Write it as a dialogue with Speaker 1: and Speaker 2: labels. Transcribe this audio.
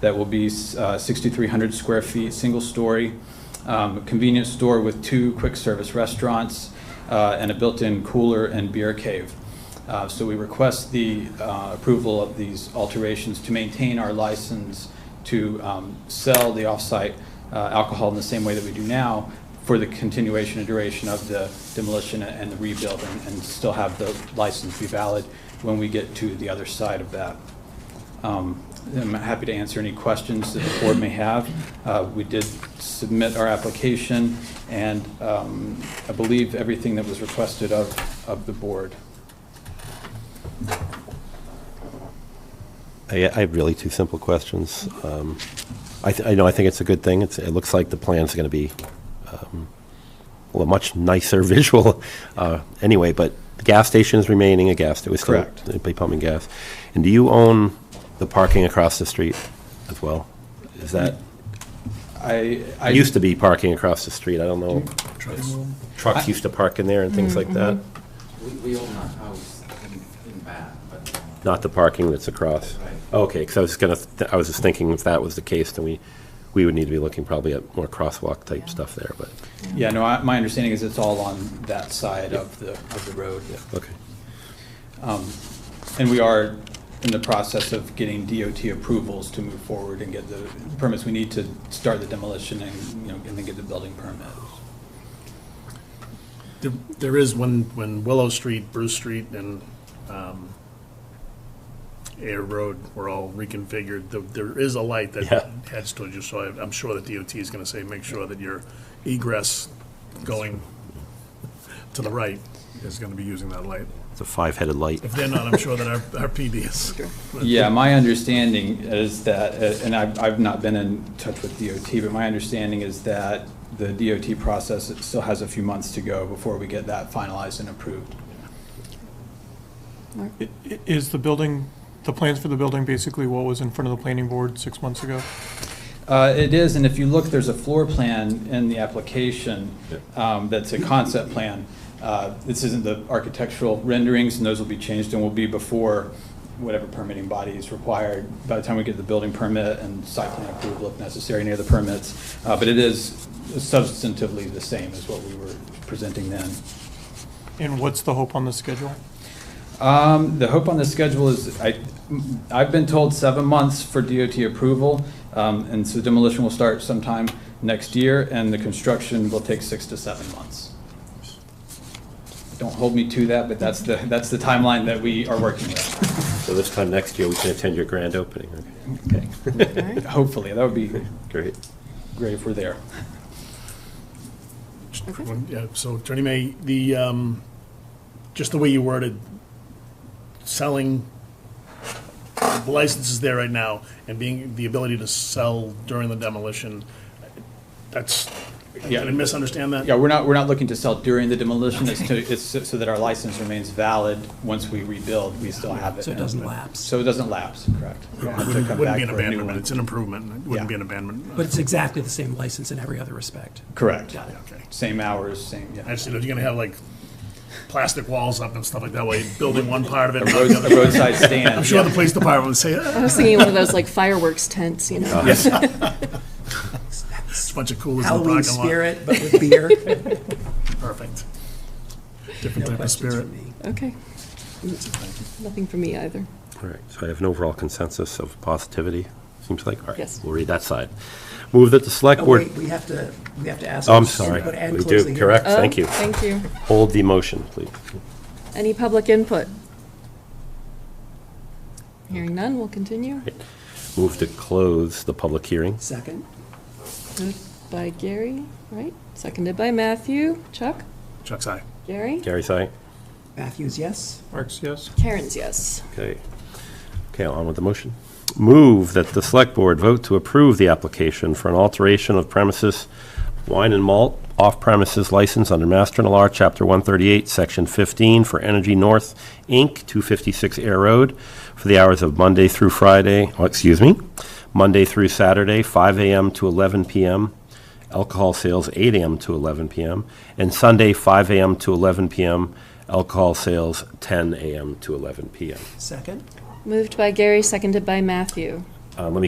Speaker 1: that will be uh, 6,300 square feet, single-story, um, convenience store with two quick-service restaurants, uh, and a built-in cooler and beer cave. Uh, So we request the uh, approval of these alterations to maintain our license to um, sell the off-site uh, alcohol in the same way that we do now for the continuation and duration of the demolition and the rebuild, and- and still have the license be valid when we get to the other side of that. Um, I'm happy to answer any questions that the board may have. Uh, We did submit our application, and um, I believe everything that was requested of, of the board.
Speaker 2: I, I have really two simple questions. Um, I, th- I know, I think it's a good thing. It's, it looks like the plan's going to be, um, well, a much nicer visual, uh, anyway, but the gas station is remaining a gas, it was still,
Speaker 1: Correct.
Speaker 2: it'd be pumping gas. And do you own the parking across the street as well? Is that,
Speaker 1: I, I.
Speaker 2: it used to be parking across the street, I don't know.
Speaker 1: I-
Speaker 2: Trucks used to park in there and
Speaker 1: Mm,
Speaker 2: things like
Speaker 1: mm-hmm.
Speaker 2: that,
Speaker 3: We, we own a house in, in back, but,
Speaker 2: not the parking that's across.
Speaker 3: Right.
Speaker 2: Okay, because I was going to, I was just thinking if that was the case, then we, we would need to be looking probably at more crosswalk type stuff there, but.
Speaker 1: Yeah, no, I- my understanding is it's all on that side of the, of the road.
Speaker 2: Okay.
Speaker 1: And we are in the process of getting DOT approvals to move forward and get the permits we need to start the demolition and, you know, and then get the building permit.
Speaker 4: There- There is when, when Willow Street, Bruce Street, and um, Air Road were all reconfigured, th- there is a light that
Speaker 2: Yeah.
Speaker 4: heads towards you, so I- I'm sure the DOT is going to say, make sure that your egress going to the right is going to be using that light.
Speaker 2: It's a five-headed light.
Speaker 4: If they're not, I'm sure that our our PD is.
Speaker 1: Yeah, my understanding is that, uh, and I've, I've not been in touch with DOT, but my understanding is that the DOT process it still has a few months to go before we get that finalized and approved.
Speaker 5: I- i- Is the building, the plans for the building basically what was in front of the planning board six months ago?
Speaker 1: Uh, It is, and if you look, there's a floor plan in the application um, that's a concept plan. Uh, This isn't the architectural renderings, and those will be changed and will be before whatever permitting body is required by the time we get the building permit and site plan approval if necessary, any other permits. Uh, But it is substantively the same as what we were presenting then.
Speaker 5: And what's the hope on the schedule?
Speaker 1: Um, the hope on the schedule is, I, I've been told seven months for DOT approval, um, and so demolition will start sometime next year, and the construction will take six to seven months. Don't hold me to that, but that's the, that's the timeline that we are working with.
Speaker 2: So this time next year, we can attend your grand opening. Okay,
Speaker 1: Hopefully, that would be
Speaker 2: Great.
Speaker 1: great if we're there.
Speaker 4: Just one- yeah, So Attorney May, the, um, just the way you worded, selling, the license is there right now, and being, the ability to sell during the demolition, that's, did
Speaker 1: Yeah.
Speaker 4: I misunderstand that?
Speaker 1: Yeah, we're not, we're not looking to sell during the demolition, it's to, it's so so that our license remains valid. Once we rebuild, we still have it.
Speaker 6: So it doesn't lapse.
Speaker 1: So it doesn't lapse, correct. We don't have to come
Speaker 4: Wouldn't
Speaker 1: back
Speaker 4: be an
Speaker 1: for a new one.
Speaker 4: abandonment, it's an improvement, it wouldn't be
Speaker 1: Yeah.
Speaker 4: an abandonment.
Speaker 6: But it's exactly the same license in every other respect.
Speaker 1: Correct.
Speaker 6: Got it.
Speaker 4: Okay.
Speaker 1: Same hours, same, yeah.
Speaker 4: I just, you know, you're gonna have like plastic walls up and stuff like that, while you're building one part of it.
Speaker 1: A
Speaker 4: and not
Speaker 1: road-
Speaker 4: the
Speaker 1: a
Speaker 4: other.
Speaker 1: roadside stand.
Speaker 4: I'm sure the police department would say, "Ah,
Speaker 7: I was thinking one of those like fireworks tents, you know?
Speaker 4: it's a bunch of coolers in the parking lot.
Speaker 6: Halloween spirit, but with beer.
Speaker 4: Perfect. Different type
Speaker 6: No
Speaker 4: of
Speaker 6: questions
Speaker 4: spirit.
Speaker 6: from me.
Speaker 7: Okay. Nothing for me either.
Speaker 2: All right, so I have an overall consensus of positivity, seems like. All right,
Speaker 7: Yes.
Speaker 2: We'll read that side. Move that the select
Speaker 6: Oh,
Speaker 2: board,
Speaker 6: wait, we have to, we have to ask.
Speaker 2: Oh, I'm sorry.
Speaker 6: Input and
Speaker 2: We
Speaker 6: close
Speaker 2: do,
Speaker 6: the hearing.
Speaker 2: correct, thank
Speaker 7: Oh,
Speaker 2: you.
Speaker 7: Thank you.
Speaker 2: Hold the motion, please.
Speaker 7: Any public input? Hearing none, we'll continue.
Speaker 2: Move to close the public hearing.
Speaker 6: Second,
Speaker 7: Moved By Gary, right? Seconded by Matthew. Chuck?
Speaker 4: Chuck's eye.
Speaker 7: Gary?
Speaker 2: Gary's aye.
Speaker 6: Matthews, yes.
Speaker 5: Marks, yes?
Speaker 7: Karen's yes.
Speaker 2: Okay. Okay, on with the motion. Move that the select board vote to approve the application for an alteration of premises wine and malt off-premises license under Master and Law, Chapter 138, Section 15, for Energy North, Inc., 256 Air Road, for the hours of Monday through Friday, oh, excuse me, Monday through Saturday, 5 a.m. to 11 p.m., alcohol sales 8 a.m. to 11 p.m., and Sunday, 5 a.m. to 11 p.m., alcohol sales 10 a.m. to 11 p.m.
Speaker 6: Second.
Speaker 7: Moved by Gary, seconded by Matthew.
Speaker 2: Um, Let me